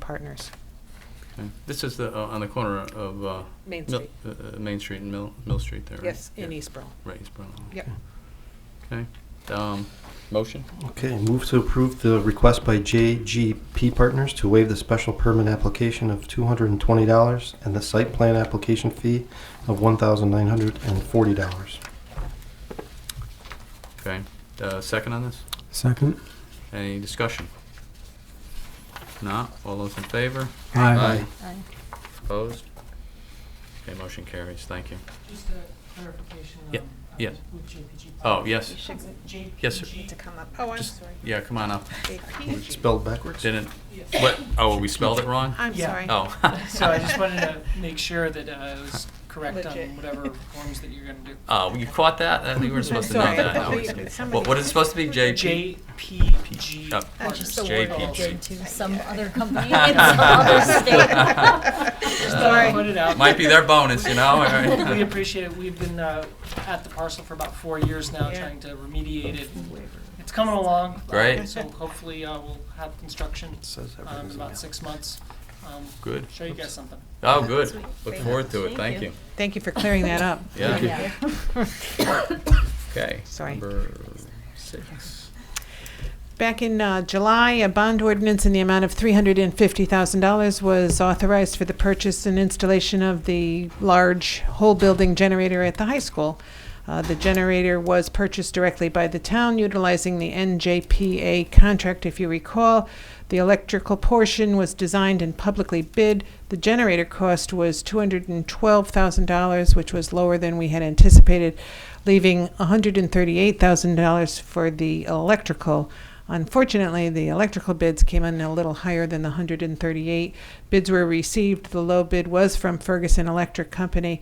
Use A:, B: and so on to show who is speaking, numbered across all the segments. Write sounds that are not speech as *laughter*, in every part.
A: partners.
B: Okay. This is the, uh, on the corner of, uh,
A: Main
B: Mil-
A: Street,
B: uh, uh, Main Street and Mill, Mill Street there, right?
A: yes, in
B: Yeah,
A: Eastboro.
B: Right, East Berlin.
A: Yep.
B: Okay, um, motion?
C: Okay, move to approve the request by JGP Partners to waive the special permit application of $220 and the site plan application fee of $1,940.
B: Okay, uh, second on this?
D: Second.
B: Any discussion? Not, all those in favor?
D: Aye.
B: Opposed? Okay, motion carries, thank you.
E: Just a clarification.
B: Yeah,
E: um, I
B: yeah.
E: was With JPG.
B: Oh, yes,
E: JPG.
B: yes, sir.
A: To come up. Oh, I'm
B: Just-
A: sorry.
B: yeah, come on up.
A: APG.
C: Spelled backwards?
B: Didn't,
E: Yes.
B: what, oh, we spelled it wrong?
A: I'm
E: Yeah.
A: sorry. *laughs*
B: Oh.
E: *laughs* So I just wanted to make sure that uh, I was correct
A: Legit.
E: on whatever forms that you're going to do.
B: Oh, you caught that? I think we were supposed to know
A: sorry, I
B: that.
A: thought
B: No,
A: we-
B: it's-
A: somebody-
B: What, what is it supposed to be, JP?
E: JPG.
B: Oh,
F: That's
E: partners.
F: just the word
B: JPG.
F: altered to some
A: Yeah.
F: other company in some other *laughs* state.
E: Just thought I'd put
A: Sorry.
E: it out.
B: Might be their bonus, you know? all right.
E: *laughs* We appreciate it. We've been uh, at the parcel for about four years now,
A: Yeah.
E: trying to remediate it. It's coming along. uh,
B: Great.
E: So hopefully uh, we'll have construction
C: It says
E: um, in
C: everything's
E: about
C: in
E: six months. Um,
B: Good.
E: Show you guys something.
B: Oh, good.
F: Sweet.
B: Look
F: Thank
B: forward to it.
F: you.
B: Thank you.
F: Thank
A: Thank you for clearing that up.
B: Yeah.
F: Yeah.
B: Okay.
A: Sorry.
B: Number six.
A: Back in uh, July, a bond ordinance in the amount of $350,000 was authorized for the purchase and installation of the large whole building generator at the high school. Uh, The generator was purchased directly by the town utilizing the NJPA contract, if you recall. The electrical portion was designed and publicly bid. The generator cost was $212,000, which was lower than we had anticipated, leaving $138,000 for the electrical. Unfortunately, the electrical bids came in a little higher than the 138 bids were received. The low bid was from Ferguson Electric Company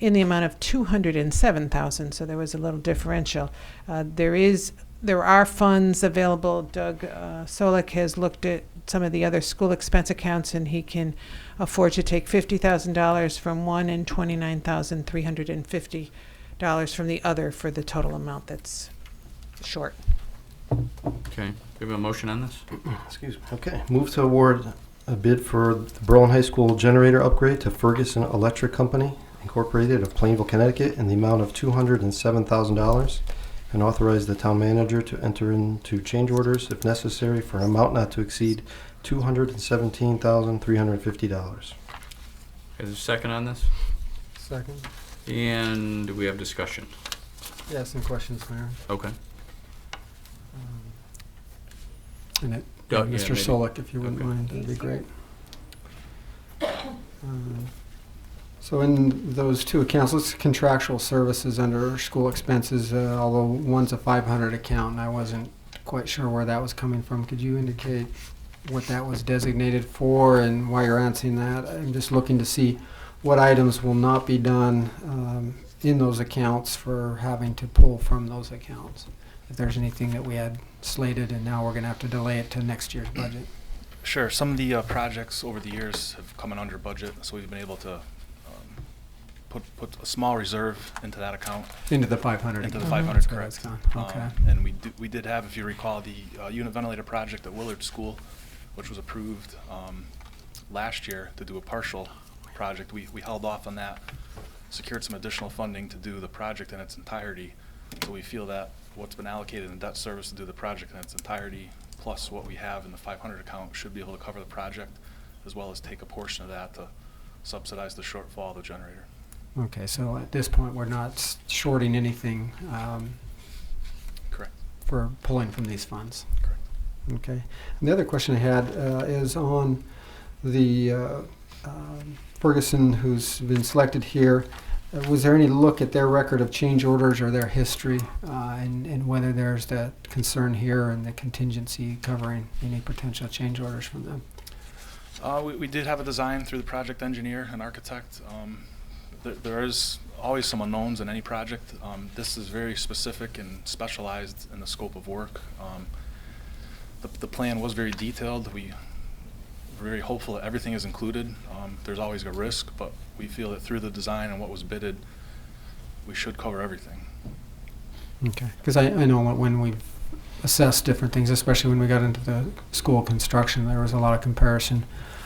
A: in the amount of 207,000, so there was a little differential. Uh, there is there are funds available. Doug uh, Solik has looked at some of the other school expense accounts, and he can afford to take fifty thousand dollars from one and twenty nine thousand three hundred and fifty dollars from the other for the total amount that's short.
B: Okay. Do we have a motion on this?
C: Excuse me. Okay, move to award a bid for the Berlin High School generator upgrade to Ferguson Electric Company Incorporated of Plainville, Connecticut in the amount of $207,000 and authorize the town manager to enter into change orders if necessary for an amount not to exceed $217,350.
B: Is there a second on this?
D: *laughs* Second.
B: And do we have discussion?
D: Yeah, some questions, Mayor. Um,
B: Okay.
D: And it,
B: Yeah, yeah,
D: Mr.
B: maybe.
D: Solik, if you wouldn't
B: Okay.
D: mind, that'd be great. Um, So in those two accounts, let's contractual services under school expenses, uh, although one's a 500 account, and I wasn't quite sure where that was coming from. Could you indicate what that was designated for and why you're answering that? I'm just looking to see what items will not be done um, in those accounts for having to pull from those accounts. If there's anything that we had slated and now we're gonna have to delay it to next year's budget.
G: Sure. Some of the uh, projects over the years have come in under budget, so we've been able to um, put put a small reserve into that account.
D: Into the five hundred.
G: Into the 500, correct.
D: Okay.
G: Um, and we do, we did have, if you recall, the uh, unit ventilator project at Willard School, which was approved um, last year to do a partial project. We we held off on that, secured some additional funding to do the project in its entirety. So we feel that what's been allocated in debt service to do the project in its entirety, plus what we have in the 500 account, should be able to cover the project, as well as take a portion of that to subsidize the shortfall of the generator.
D: Okay, so at this point, we're not s- shorting anything um,
G: Correct.
D: for pulling from these funds.
G: Correct.
D: Okay. And the other question I had uh, is on the uh, um, Ferguson, who's been selected here. Uh, Was there any look at their record of change orders or their history, uh, and and whether there's that concern here and the contingency covering any potential change orders from them?
G: Uh, we, we did have a design through the project engineer and architect. Um, there, there is always some unknowns in any project. Um, this is very specific and specialized in the scope of work. Um, the, the plan was very detailed. We were very hopeful that everything is included. Um, there's always a risk, but we feel that through the design and what was bidded, we should cover everything.
D: Okay, because I, I know when we've assess different things, especially when we got into the school construction. There was a lot of comparison.